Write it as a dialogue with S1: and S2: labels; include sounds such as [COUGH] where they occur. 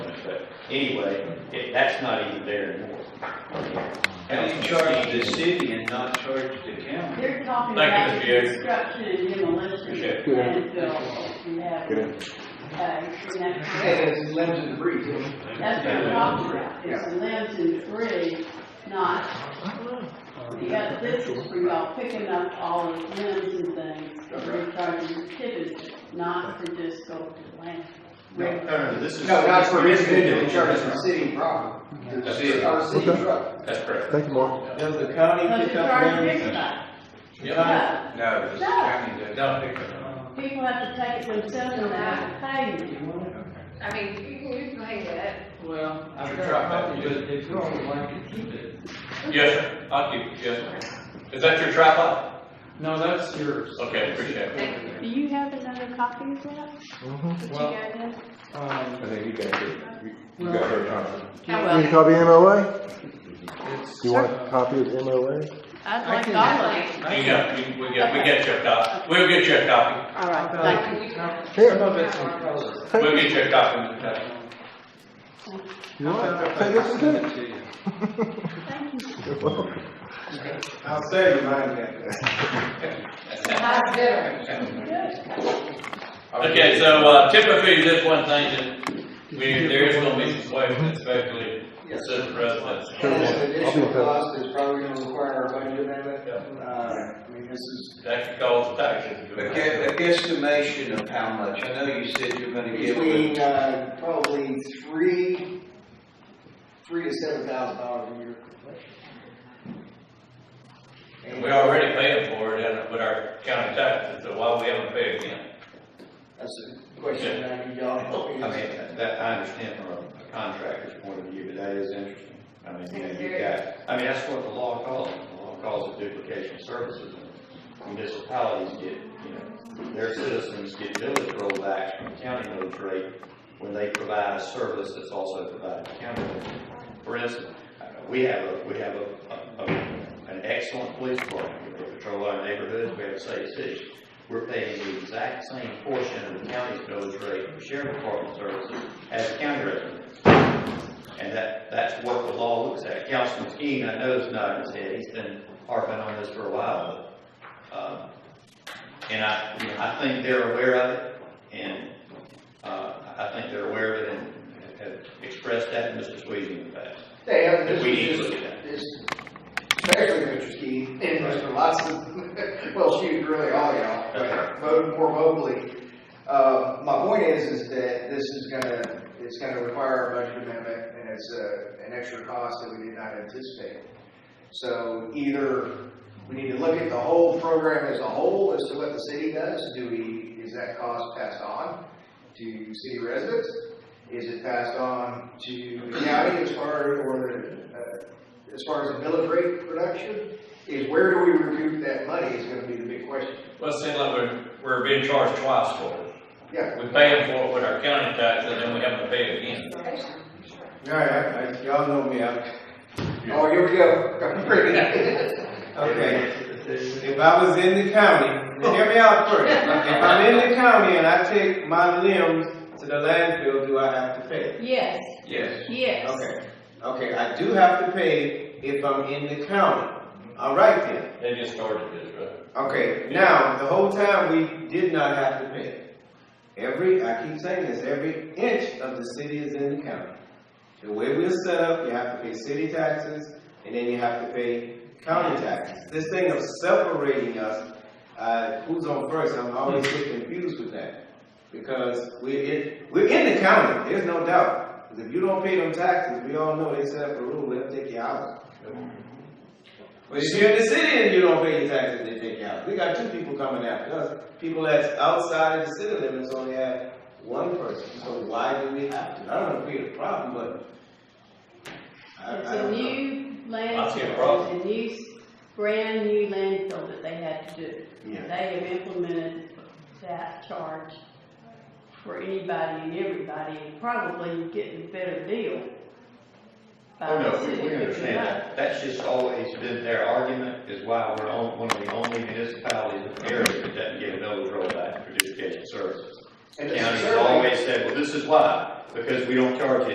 S1: Anyway, it, that's not even there anymore.
S2: How do you charge the city and not charge the county?
S3: They're talking about
S4: Thank you, Mr. Yates.
S3: construction demolition
S4: Appreciate
S3: landfill. You have, uh, you have-
S5: Hey, it's limbs and breeze.
S3: That's what I'm talking about, is the limbs and debris, not, the other, this is for y'all picking up all the limbs and things, and recharging the tippets, not to just go to the land.
S5: No.
S1: no, this
S5: No, not for individual, charges for city property.
S4: That's it.
S5: Or city
S6: Okay.
S5: truck.
S4: That's correct.
S6: Thank you, Mark.
S2: Does the county
S3: But
S2: pick
S3: the
S2: up
S3: charge
S2: limbs?
S3: is not,
S2: Yeah.
S3: no,
S2: No, the county does.
S4: Don't pick up.
S3: people have to take it themselves and have to pay you.
S7: I mean, you can, you can hang that.
S8: Well, I've
S2: Sure,
S8: got a
S2: I'll
S8: copy,
S2: do
S8: but if you don't like it, keep it.
S4: Yes, sir. I'll keep it, yes, sir. Is that your tripod?
S8: No, that's yours.
S4: Okay, appreciate it.
S7: Thank
S3: Do you have another copy of that?
S6: Mhm.
S7: Did you
S8: Well-
S7: guys have?
S8: Um,
S6: think you got it.
S8: You got
S6: her
S7: How
S6: Need a
S7: well?
S6: copy of MOA?
S8: it's.
S6: You want a copy of MOA?
S3: I'd
S8: I
S3: like
S8: can-
S3: all of it.
S4: You got, you- we get, we get you a copy. We'll get you a copy.
S3: All
S8: I've
S3: right,
S8: got
S3: thank
S8: a
S3: you.
S8: copy.
S6: Here.
S8: Some of it's in color.
S4: We'll get you a copy, Mr. Taylor.
S6: You want?
S8: I've
S6: it?
S8: got
S6: Take this
S8: a
S6: and
S8: copy
S6: take it.
S8: to you.
S6: You're welcome.
S5: I'll save you mine then.
S7: How's dinner?
S4: Okay, so uh, typically, this one thing that we, there is gonna be some questions, especially citizen residents.
S5: This
S6: I'll
S5: additional
S6: be in touch.
S5: cost is probably gonna require a budget amendment. Uh, I mean, this is,
S4: That could cause taxes. to
S2: A
S4: go up.
S2: gu- a guesstimation of how much, I know you said you're gonna give
S5: between,
S2: it.
S5: uh, probably three, three to seven thousand dollars a year.
S4: We already paying for it in, our- with our county taxes, so why we haven't paid again?
S5: That's a question I need y'all to help me
S1: I mean,
S5: answer.
S1: that, I understand from a contractor's point of view, but that is interesting. I mean, you know, you got,
S7: Very.
S1: I mean, that's what the law calls it. The law calls it duplication of services. And Municipalities get, you know, their citizens get village rollbacks from county village rate when they provide a service that's also provided to county. roads. For instance, uh, we have a, we have a, a- a- an excellent police department. We patrol our neighborhoods. We have a safe city. We're paying the exact same portion of the county's village rate for sheriff department services as the county resident. And that, that's what the law looks at. Councilman Skeen, I know is not his head, he's been harping on this for a while. but, um, And I, you know, I think they're aware of it, and, uh, I think they're aware of it and have expressed that to Mr. Sweezy in the past.
S5: They have,
S1: That
S5: this
S1: we need
S5: is
S1: to
S5: just,
S1: look at
S5: this, especially Mr. Ski and Mr. Lotson, [LAUGHS] well, shoot, really all y'all, but mo- more vocally. Uh, my point is, is that this is gonna, it's gonna require a budget amendment and it's a, an extra cost that we did not anticipate. So either we need to look at the whole program as a whole as to what the city does. Do we, is that cost passed on to city residents? Is it passed on to the county as far, or the, uh, as far as the millage rate production? Is where do we recoup that money is gonna be the big question.
S4: Well, it seems like we're, we're being charged twice for it.
S5: Yeah.
S4: We're paying for it with our county taxes, and then we haven't paid again.
S2: All right, I- I- y'all know me, I'm
S5: Oh, here we go.
S2: Okay, if I was in the county, hear me out first, if I'm in the county and I take my limbs to the landfill, do I have to pay?
S3: Yes,
S2: Yes.
S3: yes.
S2: Okay, okay, I do have to pay if I'm in the county, all right then.
S4: They just started this, right?
S2: Okay, now, the whole time, we did not have to pay. Every, I keep saying this, every inch of the city is in the county. The way we're set up, you have to pay city taxes, and then you have to pay county taxes. This thing of separating us, uh, who's on first, I'm always get confused with that. Because we're in, we're in the county, there's no doubt. 'Cause if you don't pay them taxes, we all know they set up a rule, they'll take you out. But if you're in the city and you don't pay your taxes, they take you out. We got two people coming after us. People that's outside of the city limits only have one person, so why do we have to? I don't want to create a problem, but. I- I
S3: It's a
S2: don't know.
S3: new
S4: I see a
S3: landfill,
S4: problem.
S3: it's a new, s- brand new landfill that they had to do.
S2: Yeah.
S3: They have implemented that charge for anybody and everybody, and probably getting a better deal. by
S1: Oh,
S3: the
S1: no,
S3: city
S1: we- we
S3: picking
S1: understand
S3: up.
S1: that. That's just always been their argument, is why we're on- one of the only municipalities in the area that doesn't get a millage rollback for education services.
S5: And
S1: County has
S5: certainly-
S1: always said, well, this is why, because we don't charge you